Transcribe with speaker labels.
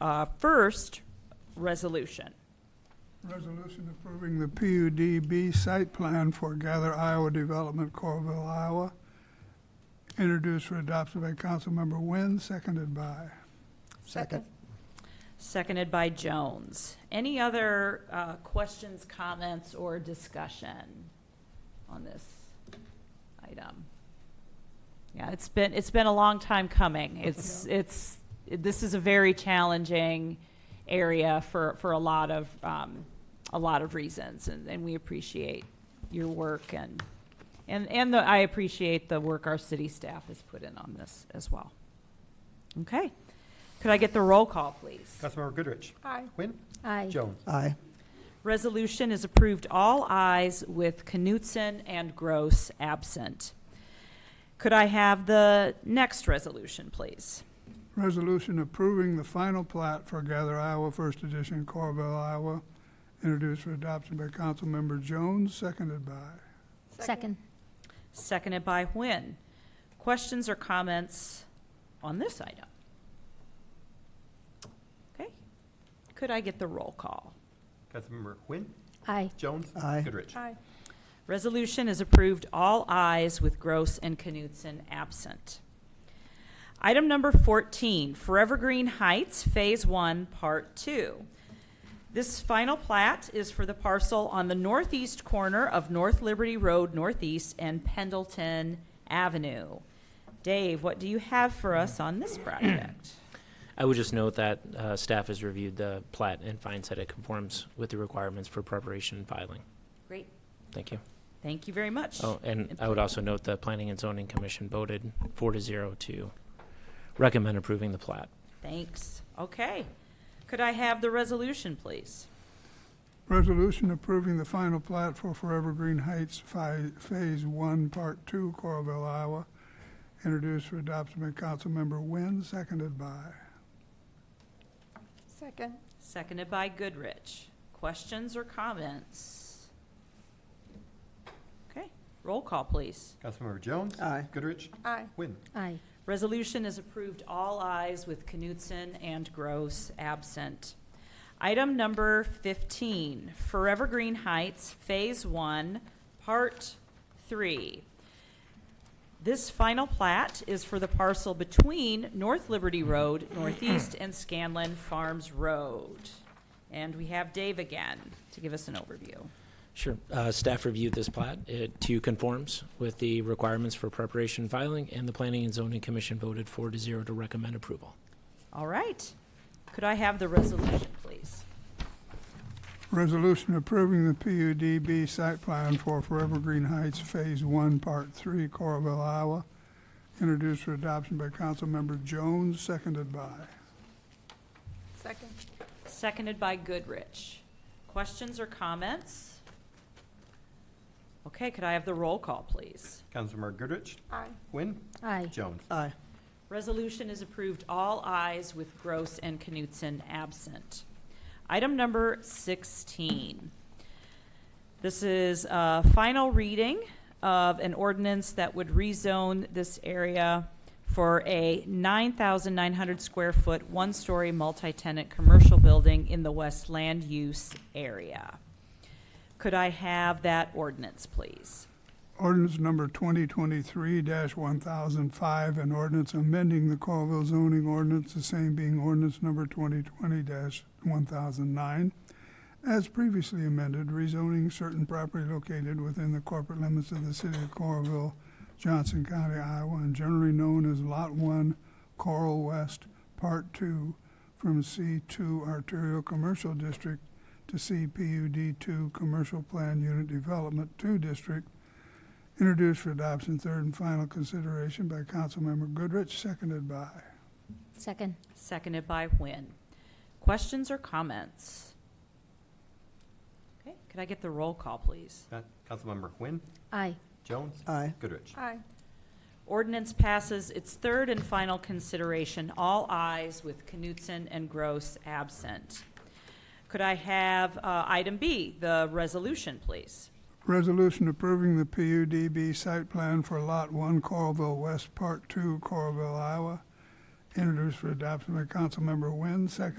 Speaker 1: uh, first resolution.
Speaker 2: Resolution approving the PUDB site plan for Gather Iowa Development, Corville, Iowa, introduced for adoption by Councilmember Wynn, seconded by.
Speaker 3: Second.
Speaker 1: Seconded by Jones. Any other uh, questions, comments, or discussion on this item? Yeah, it's been, it's been a long time coming. It's, it's, this is a very challenging area for, for a lot of, um, a lot of reasons, and, and we appreciate your work and, and, and the- I appreciate the work our city staff has put in on this as well. Okay. Could I get the roll call, please?
Speaker 3: Councilmember Goodrich.
Speaker 4: Aye.
Speaker 3: Quinn.
Speaker 4: Aye.
Speaker 3: Jones.
Speaker 5: Aye.
Speaker 1: Resolution is approved all ayes with Knutson and Gross absent. Could I have the next resolution, please?
Speaker 2: Resolution approving the final plat for Gather Iowa First Edition, Corville, Iowa, introduced for adoption by Councilmember Jones, seconded by.
Speaker 4: Second.
Speaker 1: Seconded by Nguyen. Questions or comments on this item? Okay. Could I get the roll call?
Speaker 3: Councilmember Quinn.
Speaker 4: Aye.
Speaker 3: Jones.
Speaker 5: Aye.
Speaker 3: Goodrich.
Speaker 4: Aye.
Speaker 1: Resolution is approved all ayes with Gross and Knutson absent. Item number 14, Forever Green Heights, Phase 1, Part 2. This final plat is for the parcel on the northeast corner of North Liberty Road Northeast and Pendleton Avenue. Dave, what do you have for us on this project?
Speaker 6: I would just note that uh, staff has reviewed the plat and finds that it conforms with the requirements for preparation and filing.
Speaker 1: Great.
Speaker 6: Thank you.
Speaker 1: Thank you very much.
Speaker 6: Oh, and I would also note the Planning and Zoning Commission voted four to zero to recommend approving the plat.
Speaker 1: Thanks. Okay. Could I have the resolution, please?
Speaker 2: Resolution approving the final plat for Forever Green Heights, Phi- Phase One, Part Two, Corville, Iowa, introduced for adoption by Councilmember Wynn, seconded by.
Speaker 4: Second.
Speaker 1: Seconded by Goodrich. Questions or comments? Okay, roll call, please.
Speaker 3: Councilmember Jones.
Speaker 5: Aye.
Speaker 3: Goodrich.
Speaker 4: Aye.
Speaker 3: Quinn.
Speaker 4: Aye.
Speaker 1: Resolution is approved all eyes with Knutson and Gross absent. Item number 15, Forever Green Heights, Phase 1, Part 3. This final plat is for the parcel between North Liberty Road Northeast and Scanlon Farms Road. And we have Dave again to give us an overview.
Speaker 6: Sure. Uh, Staff reviewed this plat. It too conforms with the requirements for preparation and filing, and the Planning and Zoning Commission voted four to zero to recommend approval.
Speaker 1: All right. Could I have the resolution, please?
Speaker 2: Resolution approving the PUDB site plan for Forever Green Heights Phase One, Part Three, Coralville, Iowa, introduced for adoption by Councilmember Jones, seconded by.
Speaker 4: Second.
Speaker 1: Seconded by Goodrich. Questions or comments? Okay, could I have the roll call, please?
Speaker 3: Councilmember Goodrich.
Speaker 4: Aye.
Speaker 3: Quinn.
Speaker 4: Aye.
Speaker 3: Jones.
Speaker 5: Aye.
Speaker 1: Resolution is approved all eyes with Gross and Knutson absent. Item number 16. This is a final reading of an ordinance that would rezone this area for a 9,900 square foot, one-story multi-tenant commercial building in the West Land Use Area. Could I have that ordinance, please?
Speaker 2: Ordinance number twenty twenty-three one thousand five, an ordinance amending the Coralville zoning ordinance, the same being ordinance number twenty twenty one thousand nine, as previously amended, rezoning certain property located within the corporate limits of the city of Coralville, Johnson County, Iowa, and generally known as Lot One, Coral West, Part Two, from C two arterial commercial district to CPUD two commercial plan unit development two district, Introduced for adoption, third and final consideration by Councilmember Goodrich, seconded by.
Speaker 4: Second.
Speaker 1: Seconded by Nguyen. Questions or comments? Okay, could I get the roll call, please?
Speaker 3: Uh, Councilmember Quinn.
Speaker 4: Aye.
Speaker 3: Jones.
Speaker 5: Aye.
Speaker 3: Goodrich.
Speaker 4: Aye.
Speaker 1: Ordinance passes its third and final consideration, all eyes with Knutson and Gross absent. Could I have uh, item B, the resolution, please?
Speaker 2: Resolution approving the PUDB site plan for Lot One, Coralville West, Part Two, Coralville, Iowa. Introduced for adoption by Councilmember Wynn, seconded